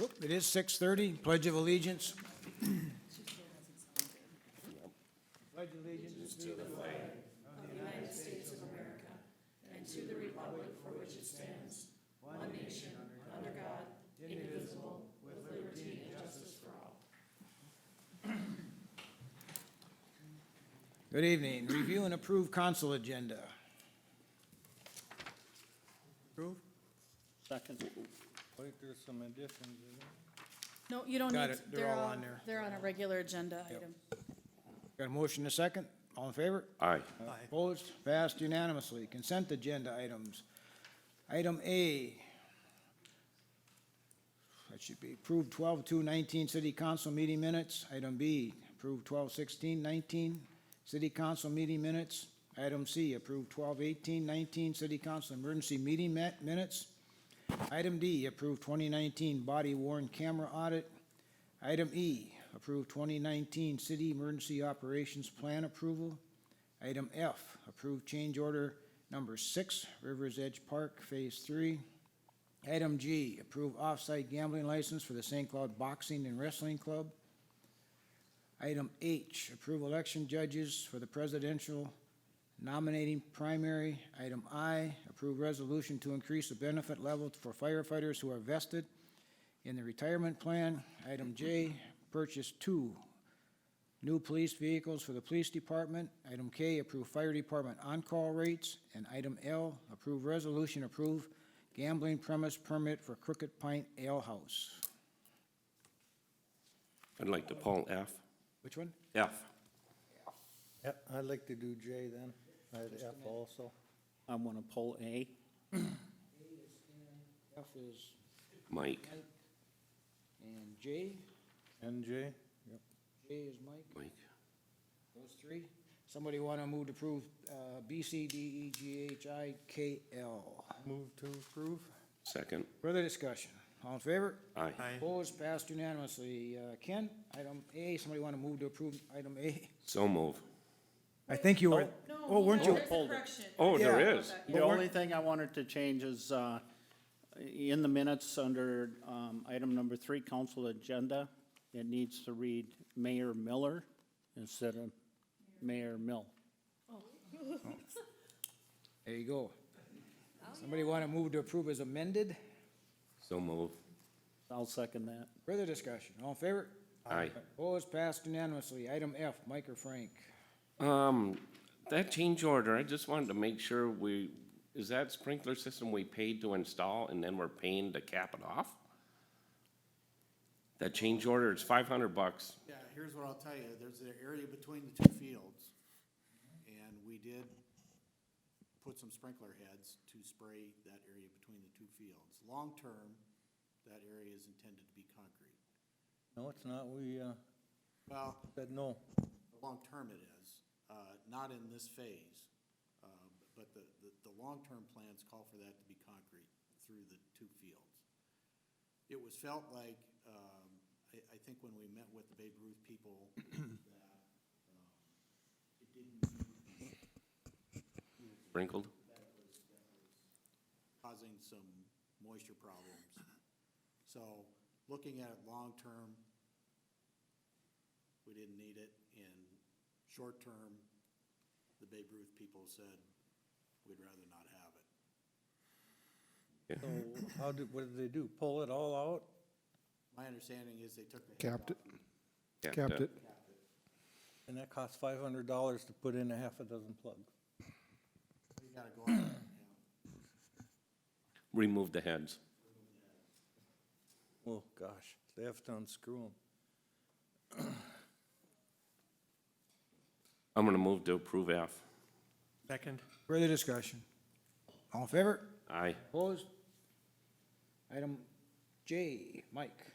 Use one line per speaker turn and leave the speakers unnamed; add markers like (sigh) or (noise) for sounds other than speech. Oop, It is 6:30, Pledge of Allegiance. Pledge allegiance to the flag of the United States of America and to the republic for which it stands, one nation, under God, indivisible, with liberty and justice for all. Good evening. Review and approve council agenda. Approve?
Second.
I think there's some additions, isn't there?
No, you don't need.
Got
to-
it. They're all
on-
on there.
They're on a regular agenda item.
Got a motion and a second? All in favor?
Aye.
Opposed? Passed unanimously. Consent agenda items. Item A. That should be approved 12-2-19 city council meeting minutes. Item B, approved 12-16-19 city council meeting minutes. Item C, approved 12-18-19 city council emergency meeting ma- minutes. Item D, approved twenty nineteen body worn camera audit. Item E, approved twenty nineteen city emergency operations plan approval. Item F, approve change order number six, Rivers Edge Park, Phase Three. Item G, approve off-site gambling license for the St. Cloud Boxing and Wrestling Club. Item H, approve election judges for the presidential nominating primary. Item I, approve resolution to increase the benefit level for firefighters who are vested in the retirement plan. Item J, purchase two New police vehicles for the police department. Item K, approve fire department on-call rates. And item L, approve resolution, approve gambling premise permit for Crooked Pint Ale House.
I'd like to pull F.
Which one?
F.
Yeah, I'd like to do J then, I'd F also.
I want to pull A.
F is,
Mike.
and J,
And J?
J is Mike,
Mike.
those three. Somebody want to move to approve uh, B, C, D, E, G, H, I, K, L.
Move to approve?
Second.
Further discussion? All in favor?
Aye.
Opposed, passed unanimously. Uh, Ken, item A, somebody want to move to approve item A?
So move.
I think you were, oh, weren't you?
There's a
Hold it.
correction.
Oh,
Yeah.
there is.
The only thing I wanted to change is, uh, in the minutes under, um, item number three, council agenda, it needs to read Mayor Miller instead of Mayor Mill.
There you go. Somebody want to move to approve as amended?
So move.
I'll second that.
Further discussion, all in favor?
Aye.
Opposed, passed unanimously. Item F, Mike or Frank?
Um, that change order, I just wanted to make sure we, is that sprinkler system we paid to install and then we're paying to cap it off? That change order, it's five hundred bucks.
Yeah, here's what I'll tell you, there's an area between the two fields, and we did put some sprinkler heads to spray that area between the two fields. Long-term, that area is intended to be concrete.
No, it's not, we, uh,
Well,
said no.
long-term it is, uh, not in this phase, uh, but the, the, the long-term plans call for that to be concrete through the two fields. It was felt like, um, I, I think when we met with the Babe Ruth people, (coughs) that, um, it didn't
Sprinkled?
causing some moisture problems. So, looking at it long-term, we didn't need it, and short-term, the Babe Ruth people said, we'd rather not have it.
So how did, what did they do? Pull it all out?
My understanding is they took the. head
Capped it,
off.
capped it.
And that costs five hundred dollars to put in a half a dozen plugs.
We gotta go out and, you know,
Remove the heads.
Oh, gosh, they have to unscrew them.
I'm gonna move to approve F.
Further discussion, all in favor?
Aye.
Opposed? Item J, Mike.